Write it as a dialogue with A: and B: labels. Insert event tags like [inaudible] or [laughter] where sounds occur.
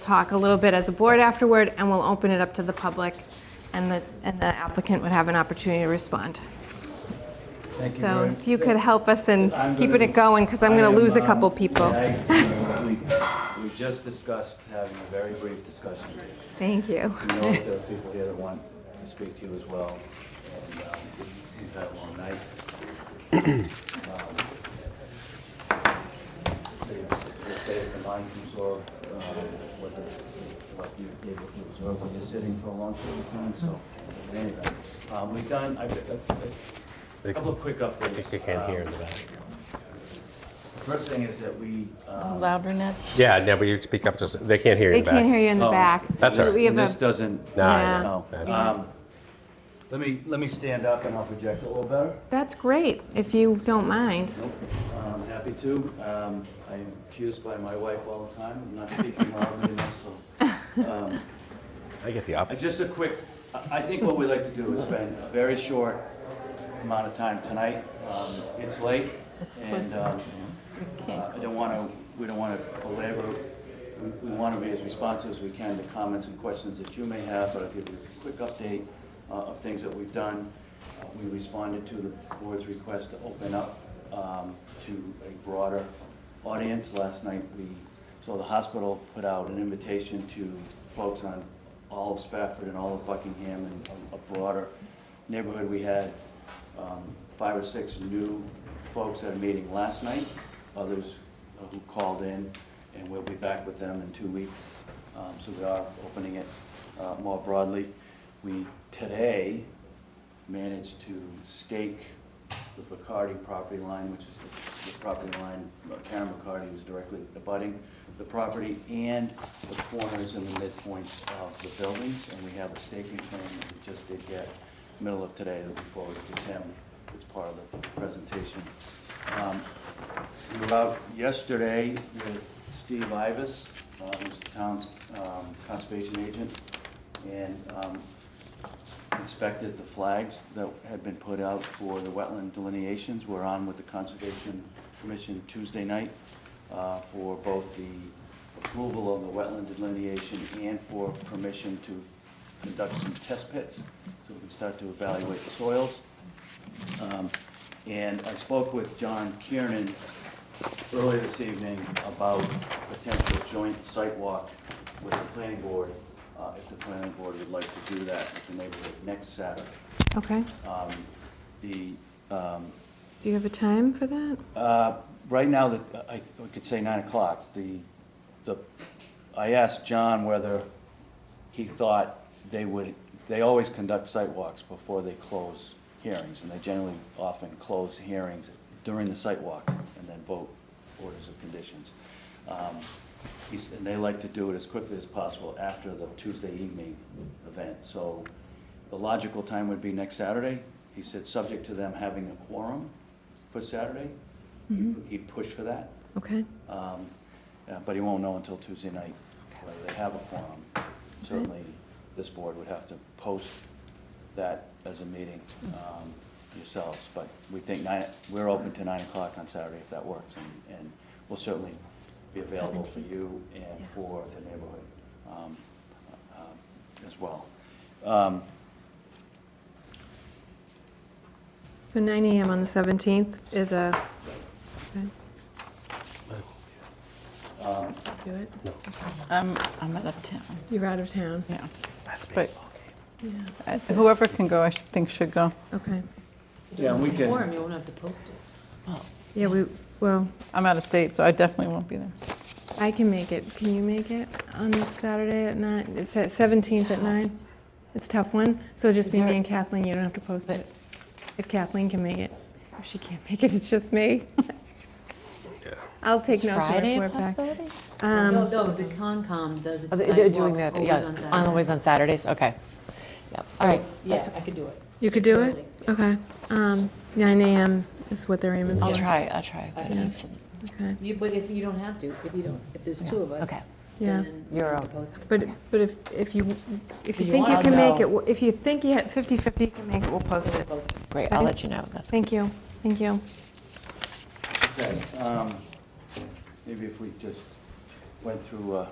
A: talk a little bit as a board afterward, and we'll open it up to the public, and the, and the applicant would have an opportunity to respond.
B: Thank you
A: So
B: very-
A: if you could help us in
B: I'm gonna-
A: keeping it going, because I'm
B: I
A: going
B: am,
A: to lose a
B: um,
A: couple
B: [laughs]
A: people.
B: I- We we just discussed having a very brief discussion.
A: Thank you.
B: We know that there are people here that want to speak to you as well. and um, We've had a long night. Um, If David can mind you absorb um, what the- what you're able to absorb when you're sitting for a long period of time, so anyway. um, We've done, I've a couple of quick updates.
C: I think I can
B: Um,
C: hear in the back.
B: First thing is that we, um,
D: Louder, Ned?
C: Yeah, no, but you speak up just, they can't hear you
A: They
C: in the back.
A: can't hear you in the
B: Oh,
A: back.
C: That's all
A: So
C: right.
A: We have
B: this
A: a,
B: doesn't,
C: No, I
A: Yeah.
C: know.
B: no.
C: That's-
B: Um, Let me, let me stand up and I'll project a little better.
A: that's great, if you don't mind.
B: Nope, I'm happy to. Um, I am accused by my wife all the time of not speaking loudly enough, so. um,
C: I get the
B: I-
C: opposite.
B: Just a quick, I- I think what we'd like to do is spend a very short amount of time tonight. Um, It's late
D: It's
B: and
D: close.
B: um, uh, I don't want to, we don't want to belabor, We- we want to be as responsive as we can to comments and questions that you may have, but I'll give you a quick update uh, of things that we've done. Uh, We responded to the board's request to open up um, to a broader audience. Last night, we, so the hospital put out an invitation to folks on all of Spafford and all of Buckingham and a- a broader neighborhood. We had um, five or six new folks at a meeting last night, others uh, who called in, and we'll be back with them in two weeks. Um, So we are opening it uh, more broadly. We, today, managed to stake the Bacardi property line, which is the- the property line, uh, Karen Bacardi was directly abutting the property and the corners and the midpoints of the buildings, and we have a staking plan that we just did get middle of today that we forwarded to Tim as part of the presentation. Um, We were out yesterday with Steve Ivas, uh, who's the town's um, conservation agent, and um, inspected the flags that had been put out for the wetland delineations. We're on with the Conservation Commission Tuesday night uh, for both the approval of the wetland delineation and for permission to conduct some test pits so we can start to evaluate the soils. Um, And I spoke with John Kiernan earlier this evening about potential joint site walk with the planning board, uh, if the planning board would like to do that with the neighborhood next Saturday.
A: Okay.
B: Um, The, um,
A: Do you have a time for that?
B: uh, right now, the- I I could say 9 o'clock. The, the, I asked John whether he thought they would, they always conduct site walks before they close hearings, and they generally often close hearings during the site walk and then vote orders of conditions. Um, he's- And they like to do it as quickly as possible after the Tuesday evening event. So the logical time would be next Saturday. He said, subject to them having a quorum for Saturday. He pushed for that.
A: Okay.
B: Um, uh, But he won't know until Tuesday night whether they have a quorum. Certainly, this board would have to post that as a meeting um, yourselves, but we think nine, we're open to nine o'clock on Saturday if that works, and, and we'll certainly be available for you and for the neighborhood um, uh, as well. Um,
A: So 9 AM on the 17th is a, okay,
B: um,
A: do it.
D: I'm, Um, I'm out of town,
A: You're out of town.
D: yeah. But
A: Yeah,
D: I th- whoever can go, I should- think should go.
A: okay.
B: Yeah, and we can,
E: you won't have to post it.
A: Yeah, we, well,
D: I'm out of state, so I definitely won't be there.
A: I can make it. Can you make it on this Saturday at 9? It's at 17th at 9? It's a tough one, so it'll just be
E: there-
A: me and Kathleen, you don't have to post it. If Kathleen can make it. If she can't make it, it's just me. I'll take
F: Is
A: notes and
F: Friday a
A: report back.
F: possibility?
A: Um,
E: No, no, the Concom does its They're site
F: doing
E: walks
F: that,
E: always
F: yeah,
E: on Saturday.
F: on always on Saturdays, okay. Yep. All right,
E: Yeah, I could do it.
A: You could do it? Okay. Um, 9 AM is what they're aiming for.
F: I'll try, I'll try. but I shouldn't.
A: Okay.
E: You, but if you don't have to, if you don't, if there's two of us.
F: Okay.
A: Yeah.
E: then
F: You're
E: you can
F: on.
E: post it.
A: But, but if, if you, if you
F: You
A: think you
F: wanna
A: can make
F: know.
A: it, we'll- if you think you had 50/50, you can make it, we'll post it.
F: Great, I'll
A: Okay.
F: let you know, that's
A: Thank you, thank you.
B: okay, um, maybe if we just went through, uh,